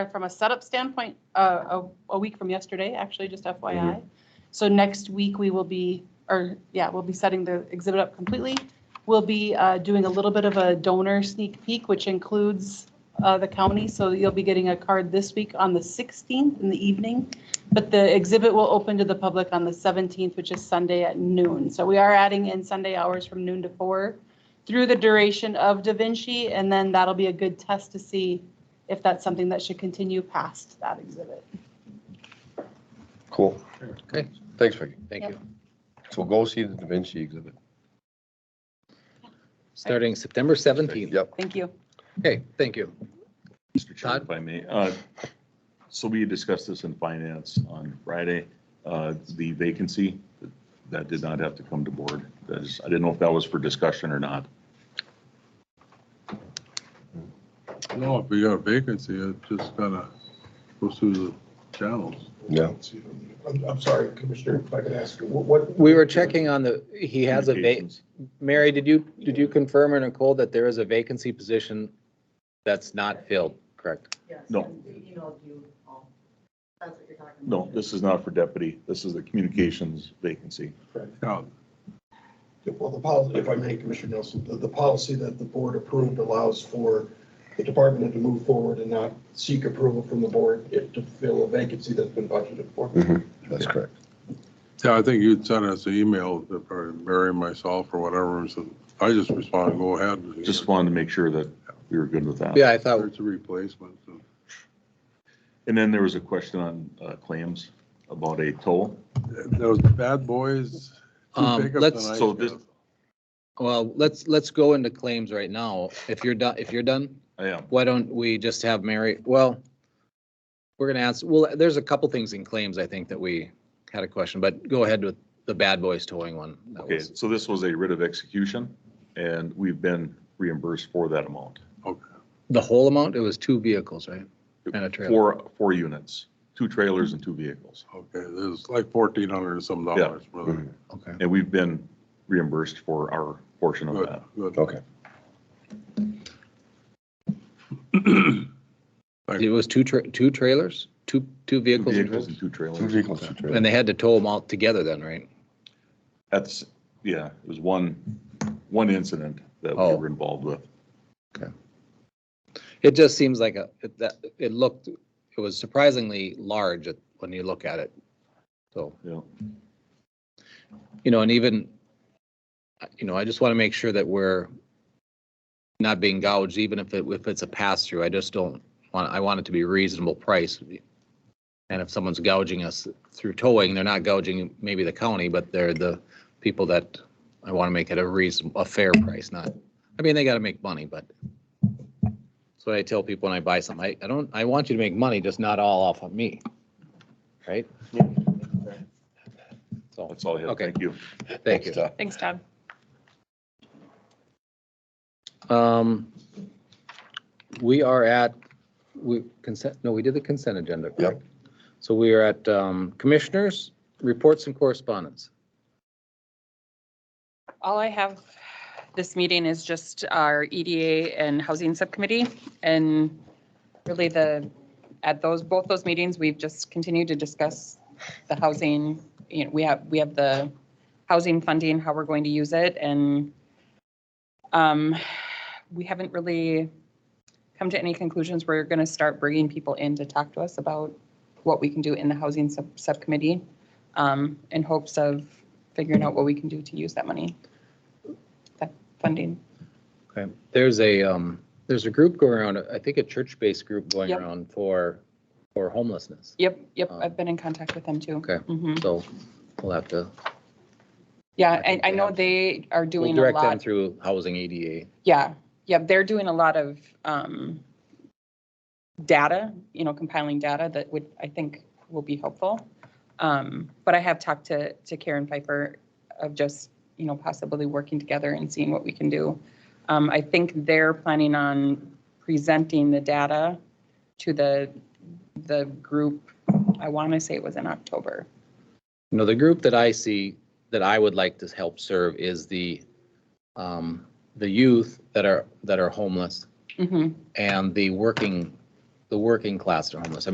from a setup standpoint, uh, a, a week from yesterday, actually, just FYI. So next week, we will be, or, yeah, we'll be setting the exhibit up completely. We'll be uh, doing a little bit of a donor sneak peek, which includes uh, the county, so you'll be getting a card this week on the 16th in the evening. But the exhibit will open to the public on the 17th, which is Sunday at noon. So we are adding in Sunday hours from noon to four through the duration of Da Vinci, and then that'll be a good test to see if that's something that should continue past that exhibit. Cool. Okay. Thanks, Vicki. Thank you. So go see the Da Vinci exhibit. Starting September 17th. Yep. Thank you. Okay, thank you. Mr. Chair, Todd? if I may, uh, so we discussed this in finance on Friday, uh, the vacancy, that did not have to come to board. That is- I didn't know if that was for discussion or not. No, if we got a vacancy, it just kind of goes through the channels. Yeah. I'm, I'm sorry, Commissioner, if I could ask you, what- what? We were checking on the, he has a va, Communications. Mary, did you, did you confirm or Nicole that there is a vacancy position that's not filled, correct? Yes. No. and we Emailed you all. That's what you're talking about. No, this is not for deputy. This is the communications vacancy. Yeah, Well, the policy, if I may, Commissioner Nelson, the, the policy that the board approved allows for the department head to move forward and not seek approval from the board if to fill a vacancy that's been budgeted for. That's correct. Yeah, I think you'd sent us an email, or Mary, myself, or whatever, and said, I just responded, go ahead. Just wanted to make sure that we were good with that. Yeah, I thought, There's a replacement. so. And then there was a question on uh, claims about a toll. Those bad boys. two Um, pickups let's- and I So this- well, let's, let's go into claims right now. If you're done, if you're done, I am. why don't we just have Mary, well, we're going to ask, well, there's a couple things in claims, I think, that we had a question, but go ahead with the Bad Boys towing one. That Okay, was- so this was a writ of execution and we've been reimbursed for that amount. Okay. The whole amount, it was two vehicles, right? And a trailer. Four, four units, two trailers and two vehicles. Okay, there's like fourteen hundred and some dollars. brother. Okay. And we've been reimbursed for our portion of Good, that. good. Okay. It was two, tra- two trailers, two, two Two vehicles. and vehicles and two Two trailers. vehicles, two trailers? trailers. And they had to tow them all together then, right? That's, yeah, it was one, one incident that we Oh. were involved with. It just seems like a, it- that, it looked, it was surprisingly large at- when you look at it. So, Yeah. you know, and even, you know, I just want to make sure that we're not being gouged, even if it, if it's a pass through. I just don't want, I want it to be reasonable price. And if someone's gouging us through towing, they're not gouging maybe the county, but they're the people that I want to make it a reason, a fair price, not, I mean, they got to make money, but that's what I tell people when I buy something. I, I don't, I want you to make money, just not all off of me. Right? So, That's all I have. Okay. Thank you. thank you. Thanks, Todd. Um, we are at, we consent, no, we did the consent agenda. correct? So we are at, um, commissioners, reports and correspondence. All I have this meeting is just our EDA and Housing Subcommittee. And really the, at those, both those meetings, we've just continued to discuss the housing. You know, we have, we have the housing funding, how we're going to use it. And um, we haven't really come to any conclusions. We're going to start bringing people in to talk to us about what we can do in the Housing Sub- Subcommittee um, in hopes of figuring out what we can do to use that money, that funding. Okay, there's a, um, there's a group going around, I think a church-based group going Yep. around for, for homelessness. Yep, yep, I've been in contact with them too. Oh. Okay. Mhm. So we'll have to, Yeah, I I, think I they know have- they are we'll doing a direct them lot. through housing EDA. Yeah, yeah, they're doing a lot of um, data, you know, compiling data that would, I think, will be helpful. Um, But I have talked to, to Karen Pfeiffer of just, you know, possibly working together and seeing what we can do. Um, I think they're planning on presenting the data to the, the group, I want to say it was in October. You know, the group that I see that I would like to help serve is the, um, the youth that are, that are homeless Mhm. and the working the working class are homeless. I